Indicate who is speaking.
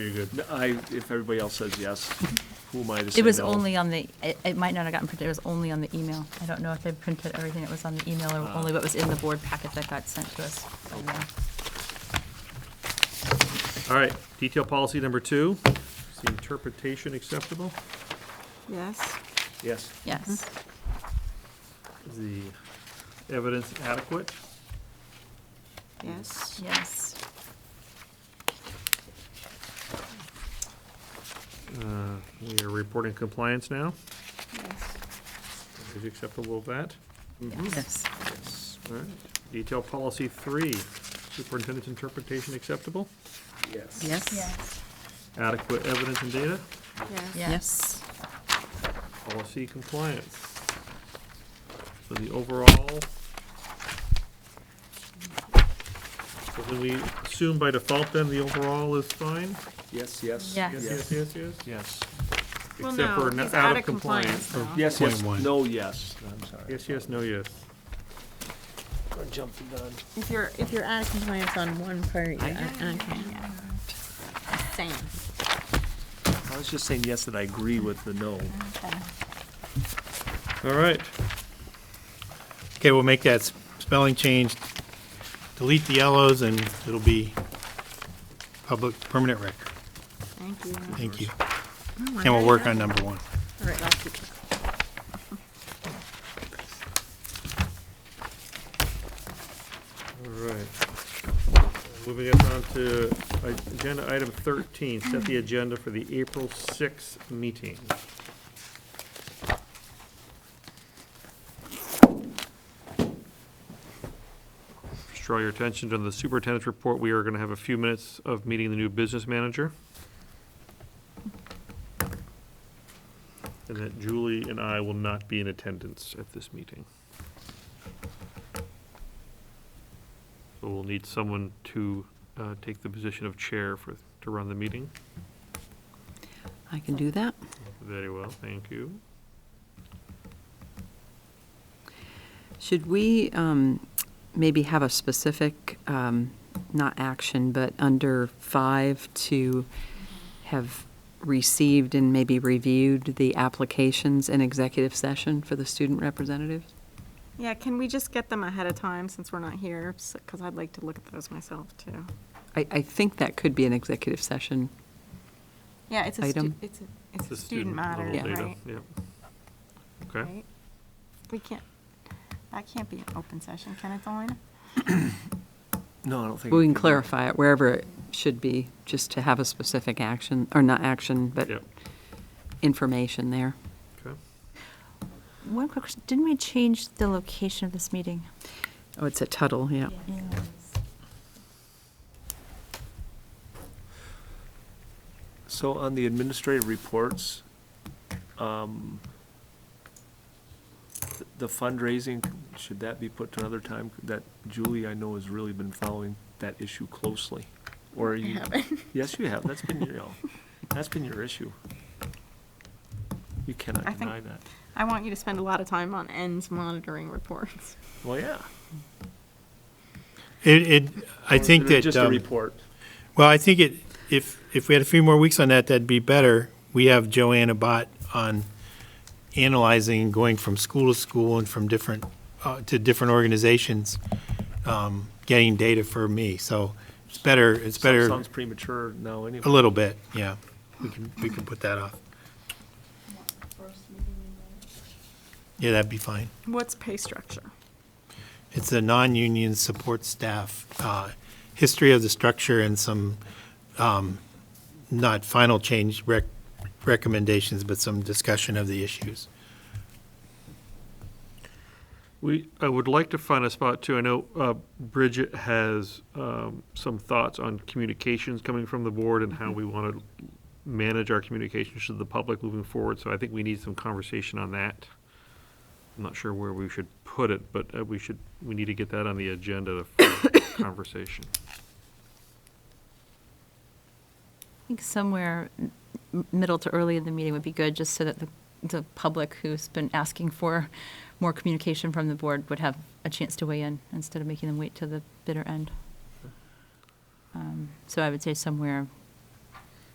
Speaker 1: You're good. I, if everybody else says yes, who am I to say no?
Speaker 2: It was only on the, it, it might not have gotten printed, it was only on the email. I don't know if they printed everything that was on the email or
Speaker 1: Ah.
Speaker 2: only what was in the board packet that got sent to us. by mail.
Speaker 1: All right, detail policy number two, is the interpretation acceptable?
Speaker 3: Yes.
Speaker 1: Yes.
Speaker 2: Yes,
Speaker 1: Is the evidence adequate?
Speaker 2: Mm-hmm.
Speaker 3: Yes.
Speaker 2: yes.
Speaker 1: Uh, We are reporting compliance now,
Speaker 3: Yes.
Speaker 1: is acceptable of that?
Speaker 4: Mm-hmm.
Speaker 2: Yes.
Speaker 1: Yes. All right, detail policy three, superintendent's interpretation acceptable?
Speaker 2: Yes.
Speaker 1: Adequate evidence and data,
Speaker 3: Yes.
Speaker 2: Yes.
Speaker 1: policy compliance. So the overall, so then we assume by default then the overall is fine?
Speaker 5: Yes, yes.
Speaker 2: Yes.
Speaker 1: Yes, yes, yes, yes.
Speaker 3: Well,
Speaker 1: Except for
Speaker 3: no,
Speaker 1: not
Speaker 3: he's out of compliance now.
Speaker 5: Yes, yes,
Speaker 4: Point one.
Speaker 5: no, yes. I'm sorry.
Speaker 1: Yes, yes, no, yes.
Speaker 5: I jumped the gun.
Speaker 3: If you're, if you're out of compliance on one part, you're okay. Same.
Speaker 5: I was just saying yes that I agree with the no.
Speaker 3: Oh,
Speaker 1: All right.
Speaker 4: Okay, we'll make that s- spelling change, delete the yellows, and it'll be public permanent record.
Speaker 3: Thank you.
Speaker 4: Thank you. And we'll work on number one.
Speaker 3: All right, I'll keep-
Speaker 1: All right. Moving us on to uh, agenda item 13, set the agenda for the April 6th meeting. Just Draw your attention to the superintendent's report. We are going to have a few minutes of meeting the new business manager. And that Julie and I will not be in attendance at this meeting. So we'll need someone to uh, take the position of chair for, to run the meeting.
Speaker 6: I can do that.
Speaker 1: Very well, thank you.
Speaker 6: Should we um, maybe have a specific, um, not action, but under five to have received and maybe reviewed the applications in executive session for the student representatives?
Speaker 3: Yeah, can we just get them ahead of time since we're not here? Because I'd like to look at those myself, too.
Speaker 6: I, I think that could be an executive session.
Speaker 3: Yeah, it's a, stu-
Speaker 6: Item.
Speaker 3: it's a, it's a
Speaker 1: The
Speaker 3: student matter,
Speaker 1: level data,
Speaker 3: right?
Speaker 1: yeah. Okay,
Speaker 3: Right? We can't, that can't be an open session, can it, Delina?
Speaker 5: No, I don't think.
Speaker 6: We can clarify it wherever it should be, just to have a specific action, or not action, but
Speaker 1: yep,
Speaker 6: information there.
Speaker 1: okay.
Speaker 2: One quick question, didn't we change the location of this meeting?
Speaker 6: Oh, it's a Tuttle, yeah.
Speaker 5: So on the administrative reports, um, th- the fundraising, should that be put to another time? That Julie, I know, has really been following that issue closely. Or are you? Yes, you have. That's been your, you know, that's been your issue. You cannot
Speaker 3: I think-
Speaker 5: deny that.
Speaker 3: I want you to spend a lot of time on ends monitoring reports.
Speaker 5: Well, yeah.
Speaker 4: It, it, I think
Speaker 5: Or
Speaker 4: that.
Speaker 5: Just a
Speaker 4: um,
Speaker 5: report.
Speaker 4: Well, I think it, if, if we had a few more weeks on that, that'd be better. We have Joanna Bott on analyzing and going from school to school and from different, uh, to different organizations, um, getting data for me. So it's better, it's better,
Speaker 5: Sounds premature now anyway.
Speaker 4: a little bit, yeah. We can, we can put that off. Yeah, that'd be fine.
Speaker 3: What's pay structure?
Speaker 4: It's a non-union support staff, uh, history of the structure and some, um, not final change rec- recommendations, but some discussion of the issues.
Speaker 1: We, I would like to find a spot too. I know uh, Bridget has um, some thoughts on communications coming from the board and how we want to manage our communications to the public moving forward, so I think we need some conversation on that. I'm not sure where we should put it, but uh, we should, we need to get that on the agenda for conversation.
Speaker 2: I think somewhere m- m- middle to early in the meeting would be good, just so that the, the public who's been asking for more communication from the board would have a chance to weigh in, instead of making them wait till the bitter end. Um, So I would say somewhere